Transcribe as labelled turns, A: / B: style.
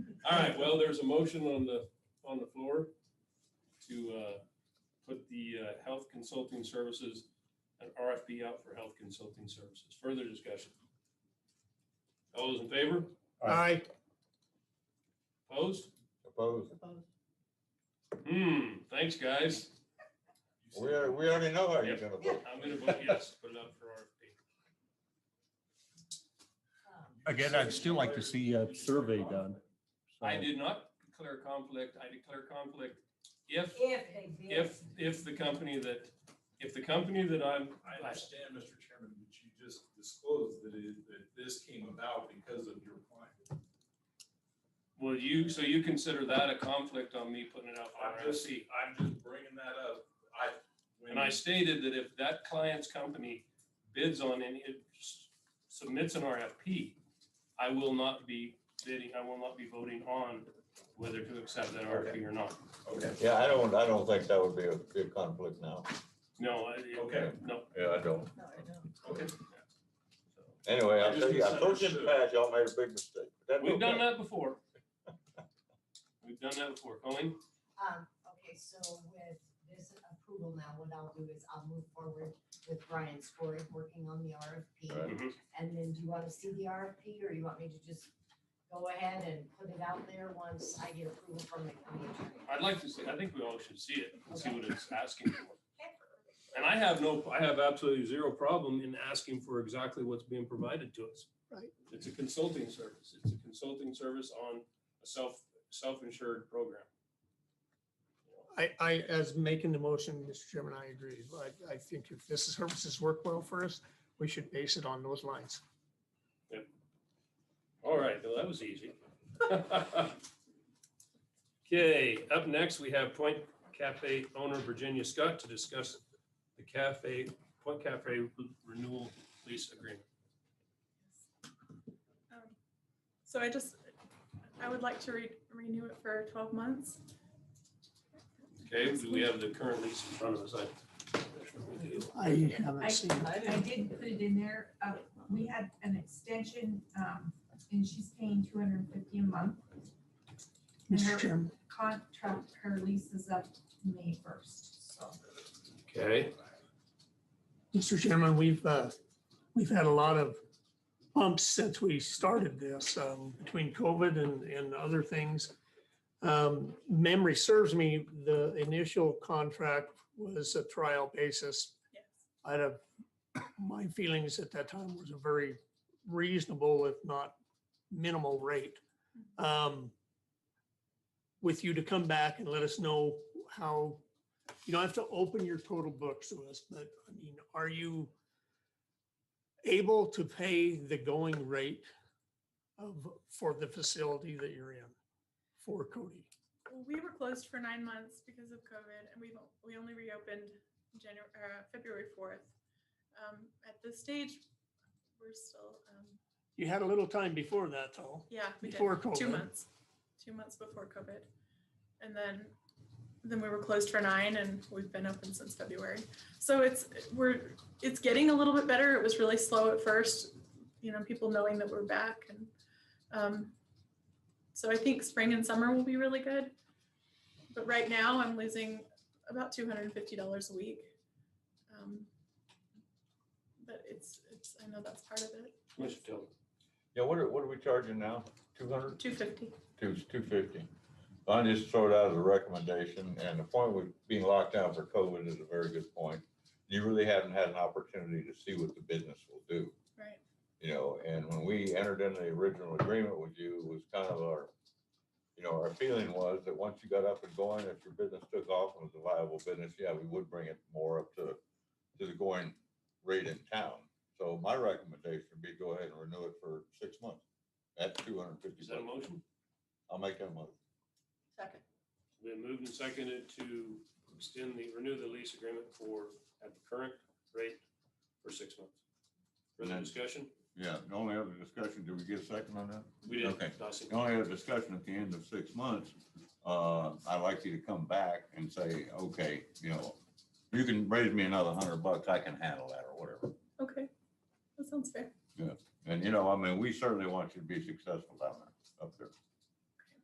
A: All right, well, there's a motion on the, on the floor to uh, put the uh, health consulting services, an RFP out for health consulting services. Further discussion? All those in favor?
B: Aye.
A: Opposed?
C: Opposed?
A: Hmm, thanks, guys.
C: We, are- we already know how you're gonna vote.
A: I'm gonna vote yes, put it up for RFP.
D: Again, I'd still like to see a survey done. So-
A: I did not declare conflict. I declare conflict if,
E: If they did.
A: if, if the company that, if the company that I'm,
F: I understand, Mr. Chairman, that you just disclosed that it, that this came about because of your client.
A: well, you, so you consider that a conflict on me putting it out for
F: I'm just,
A: RFP?
F: I'm just bringing that up. I, when
A: And I stated that if that client's company bids on any, it s- submits an RFP, I will not be bidding, I will not be voting on whether to accept that RFP or not.
F: Okay,
C: Yeah, I don't, I don't think that would be a good conflict now.
A: No, I,
F: Okay.
A: no.
C: Yeah, I don't.
E: No, I don't.
F: okay.
A: So,
C: Anyway,
F: I
C: I'll
F: just
C: tell you, I told you in the
F: misunderstood.
C: past, y'all made a big mistake. but that's
A: We've done
C: okay.
A: that before. We've done that before. Colleen?
E: Um, okay, so with this approval now, what I'll do is I'll move forward with Brian Scory working on the
C: Right.
E: RFP.
A: Mhm.
E: And then do you want to see the RFP or you want me to just go ahead and put it out there once I get approval from the county attorney?
A: I'd like to see, I think we all should see it and see what it's asking for.
E: Okay.
A: And I have no, I have absolutely zero problem in asking for exactly what's being provided to us.
B: Right.
A: It's a consulting service. It's a consulting service on a self, self-insured program.
B: I, I, as making the motion, Mr. Chairman, I agree. I, I think if this services work well for us, we should base it on those lines.
A: All right, well, that was easy. Okay, up next, we have Point Cafe owner Virginia Scott to discuss the cafe, Point Cafe renewal lease agreement.
G: Um, So I just, I would like to re- renew it for twelve months.
A: Okay, do we have the current lease in front of us? I-
B: I haven't seen. it.
H: I did put it in there, uh, we had an extension, um, and she's paying two hundred and fifty a month. And
B: Mr.
H: her
B: Chairman,
H: contract, her lease is up May first, so.
A: Okay,
B: Mr. Chairman, we've, uh, we've had a lot of bumps since we started this, um, between COVID and, and other things. Um, memory serves me, the initial contract was a trial basis
G: Yes.
B: I'd have, my feelings at that time was a very reasonable, if not minimal rate. Um, With you to come back and let us know how, you don't have to open your total books to us, but I mean, are you able to pay the going rate of, for the facility that you're in for Cody?
G: Well, we were closed for nine months because of COVID, and we we only reopened January uh, February fourth. Um, at this stage, we're still um,
B: You had a little time before that though,
G: yeah we did.
B: before COVID.
G: two months, two months before COVID, and then then we were closed for nine, and we've been open since February. So it's we're it's getting a little bit better. It was really slow at first, you know, people knowing that we're back, and um, so I think spring and summer will be really good. But right now, I'm losing about two hundred and fifty dollars a week. Um, but it's it's I know that's part of it.
A: Commissioner Tiller.
C: Yeah, what are, what are we charging now? Two hundred?
G: Two fifty.
C: Two, two fifty. I just throw it out as a recommendation, and the point with being locked down for COVID is a very good point. You really haven't had an opportunity to see what the business will do.
G: Right.
C: You know, and when we entered into the original agreement with you, it was kind of our, you know, our feeling was that once you got up and going, if your business took off and was a viable business, yeah, we would bring it more up to, to the going rate in town. So my recommendation would be go ahead and renew it for six months. That's two hundred and fifty
A: Is that a
C: bucks.
A: motion?
C: I'll make that motion.
E: Second.
A: Been moved and seconded to extend the, renew the lease agreement for, at the current rate for six months. Further
C: Mhm.
A: discussion?
C: Yeah, the only other discussion, did we get a second on that?
A: We did.
C: Okay.
A: Dawson.
C: The only other discussion at the end of six months, uh, I'd like you to come back and say, okay, you know, you can raise me another hundred bucks, I can handle that or whatever.
G: Okay, that sounds fair.
C: And, you know, I mean, we certainly want you to be successful down there, up there.